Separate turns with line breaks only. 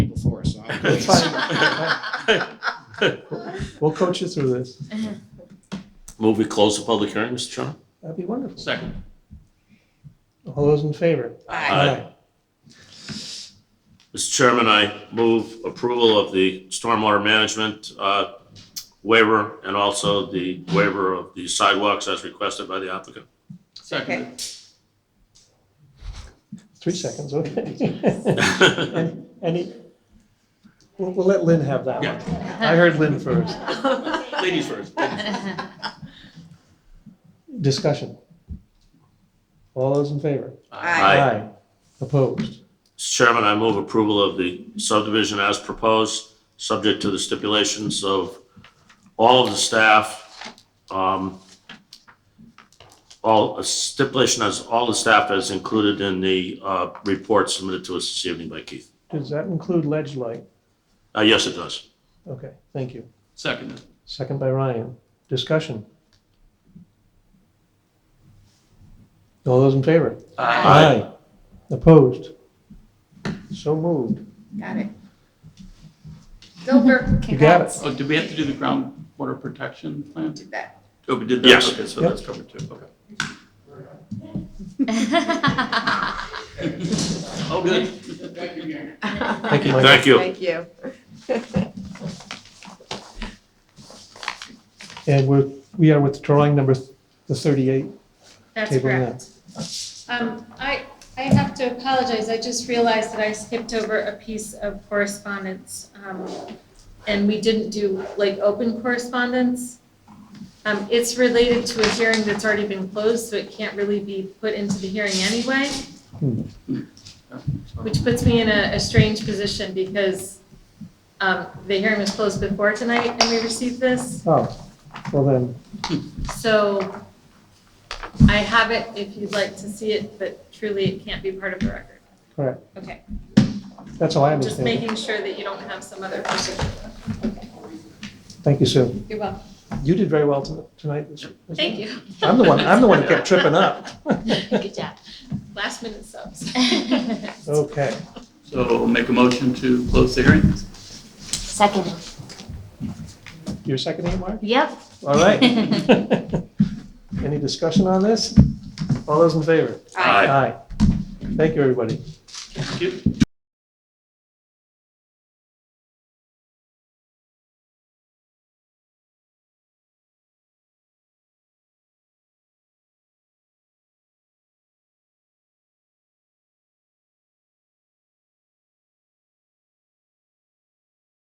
It's fine. We'll coach you through this.
Move we close the public hearing, Mr. Chairman?
That'd be wonderful.
Second.
All those in favor?
Aye. Mr. Chairman, I move approval of the stormwater management uh, waiver and also the waiver of the sidewalks as requested by the applicant.
Second.
Three seconds, okay. And Any, we'll, we'll let Lynn have that one. I heard Lynn first.
Ladies first.
Discussion. All those in favor?
Aye.
Opposed?
Mr. Chairman, I move approval of the subdivision as proposed, subject to the stipulations of all of the staff, um, all, a stipulation as all the staff is included in the uh, report submitted to us this evening by Keith.
Does that include ledge light?
Uh, Yes, it does.
Okay, thank you.
Second.
Second by Ryan. Discussion. All those in favor? Aye. Opposed? So moved.
Got it. Dover,
You got it.
congrats.
Oh, did we have to do the groundwater protection plan?
Did that.
Oh, we did that?
Yes.
Okay, so
Yep.
that's covered too, okay. Oh, good.
Thank you, Mike.
Thank you.
Thank you.
And we're, we are withdrawing number, th- the 38.
That's
Table
correct. Um, I, I have to apologize, I just realized that I skipped over a piece of correspondence. um, And we didn't do like open correspondence. Um, it's related to a hearing that's already been closed, so it can't really be put into the hearing anyway. Which puts me in a, a strange position because, um, the hearing was closed before tonight and we received this.
Oh, well then,
So I have it if you'd like to see it, but truly it can't be part of the record.
Correct.
Okay,
that's all I
just
understand. it.
making sure that you don't have some other person.
Thank you, Sue.
You're welcome.
You did very well to- tonight. This- this-
Thank you.
I'm the one, I'm the one that kept tripping up.
Good job. Last minute subs.
Okay,
So make a motion to close the hearing?
Second.
you're seconding it, Mark?
Yep.
All right. Any discussion on this? All those in favor?
Aye.
Aye. Thank you, everybody.
Thank you.